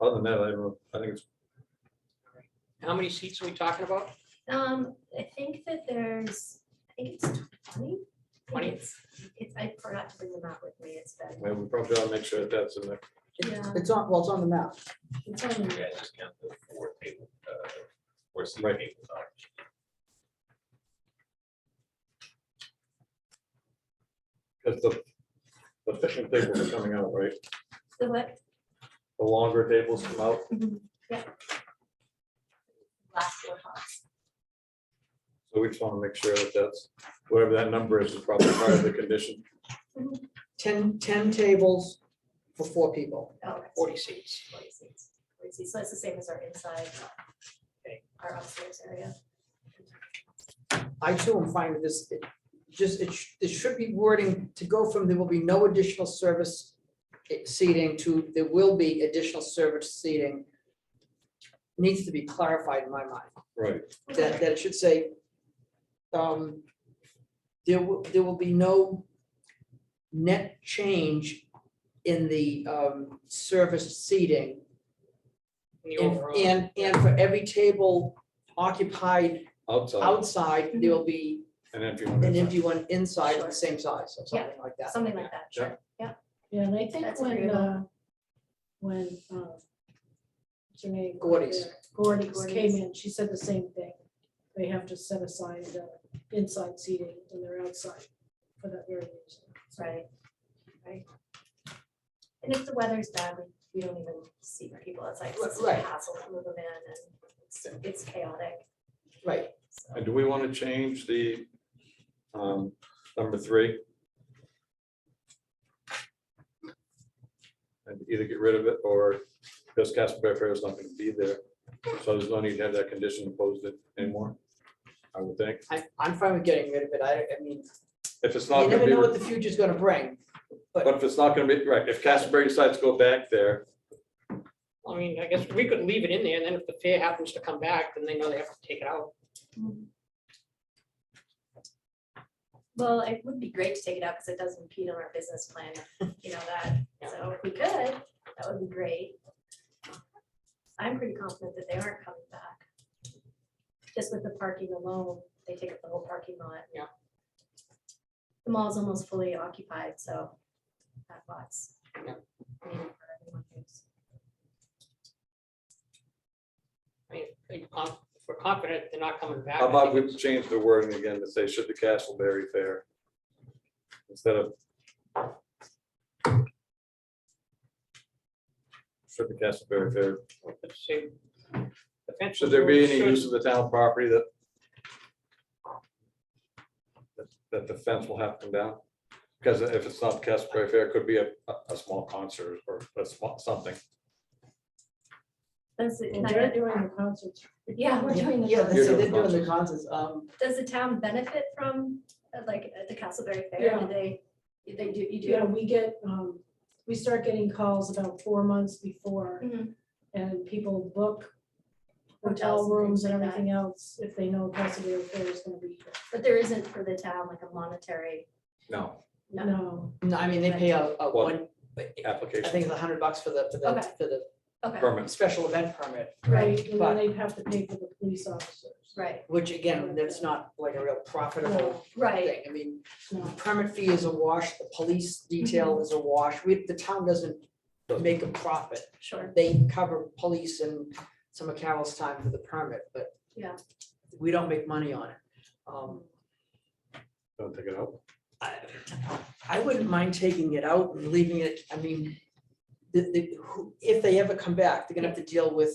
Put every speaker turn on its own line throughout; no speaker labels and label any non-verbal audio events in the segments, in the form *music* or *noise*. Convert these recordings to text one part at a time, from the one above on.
Other than that, I don't, I think it's,
How many seats are we talking about?
Um, I think that there's, I think it's twenty. I think
20?
It's, it's, I forgot to bring them out with me, it's been,
well, we probably ought to make sure that that's in there.
yeah,
It's on, well, it's on the map.
it's on,
Yeah, just count the four table, uh, four seat
Right.
tables are.
Because the, the fishing tables are coming out, right?
the what?
The longer tables come out.
Last four hots.
So we just want to make sure that that's, whatever that number is, is probably part of the condition.
Ten, ten tables for four people.
Oh, right.
Forty seats.
Forty seats. Forty seats. So it's the same as our inside.
Okay.
Our upstairs area.
I too am fine with this. It Just, it, sh- it should be wording to go from there will be no additional service eh, seating to there will be additional service seating. Needs to be clarified in my mind.
Right.
that, that it should say, um, there will, there will be no net change in the, um, service seating.
in the
And,
overall.
and, and for every table occupied
Outside
outside,
Mhm.
there will be
and empty
an
one.
empty one inside of the same size, or
Yeah.
something like that.
Something like that, sure.
Yeah, and I think
That's
when,
agreeable.
uh, when, uh, what's her name?
Gordy's.
Gordy's
Gordy's.
came in, she said the same thing. They have to set aside the inside seating and they're outside for that very reason.
Right, right. And if the weather's bad, we, we don't even see people outside, 'cause it's a
Right.
hassle to move them in and it's, it's chaotic.
Right,
so.
And Uh, do we want to change the um, number three? And either get rid of it or because Casper Fair is not going to be there. So there's no need to have that condition imposed anymore, I would think.
I, I'm fine with getting rid of it, I, I mean,
If it's not
you
going to
never
be,
know what the future's gonna bring.
but if it's not going to be, right, if Casper decides to go back there,
I mean, I guess we could leave it in there, and then if the fair happens to come back, then they know they have to take it out.
Well, it would be great to take it out because it does impede on our business plan, you know
*laughs*
that, so if we could, that would be great. I'm pretty confident that they aren't coming back. Just with the parking alone, they take up the whole parking lot.
Yeah.
The mall is almost fully occupied, so that lots.
Yeah. I mean, if we're con- if we're confident they're not coming back.
how
I
about
think
we change the wording again to say, should the Castleberry Fair? Instead of. Should the Castleberry Fair
we could say the fence
Should there be
rules
any
should-
use of the town property that that- that the fence will have to come down? Because if it's not Casper Fair, it could be a, a- a small concert or a small, something.
Does it,
And they're doing the concerts.
yeah, we're doing
Yeah,
the,
they said
You're doing
they're doing the concerts, um,
does the town benefit from, uh, like, at the Castleberry Fair,
Yeah.
do they, they do, you do?
Yeah, we get, um, we start getting calls about four months before
Mhm.
and people book
Hotels
hotel
and
rooms and
things like that.
everything else if they know Pasadena Fair is gonna be here.
But there isn't for the town like a monetary,
No,
No.
No,
no, I mean, they pay a, a
Well,
one, I
application
think it's a hundred bucks for the, for the,
Okay.
for the
okay,
permits.
special event permit,
right, and
But-
then they have to pay for the police officers. Oh,
right,
which again, that's not like a real profitable
right,
thing. I mean,
No.
the permit fee is a wash, the police detail
Mm-hmm.
is a wash. We, the town doesn't make a profit.
sure,
They cover police and some of Carol's time for the permit, but
yeah.
we don't make money on it. Um,
Don't take it out.
I, I wouldn't mind taking it out and leaving it, I mean, the, the, who- if they ever come back, they're gonna have to deal with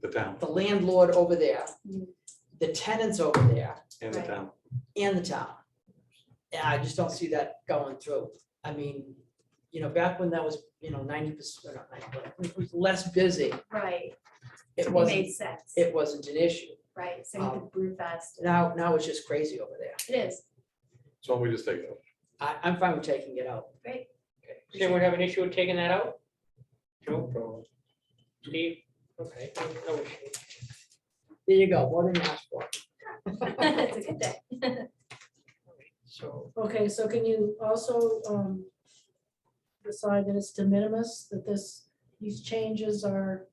The town,
the landlord over there,
Mm.
the tenants over there,
in the
Right.
town.
and the town. Yeah, I just don't see that going through. I mean, you know, back when that was, you know, ninety percent, it was less busy,
Right,
it
it
wasn't,
made sense,
it Uh. wasn't an issue.
right, so you could brew fast,
Now, now it's just crazy over there.
it is, *laughs*
So we just take it out.
I, I'm fine with taking it out.
great,
Does anyone have an issue with taking that out? Joe? Steve? Okay, no issue.
There you go, what an ask for. *laughs*
it's a good day.
So,
Okay, so can you also um, decide that it's de minimis, that this, these changes are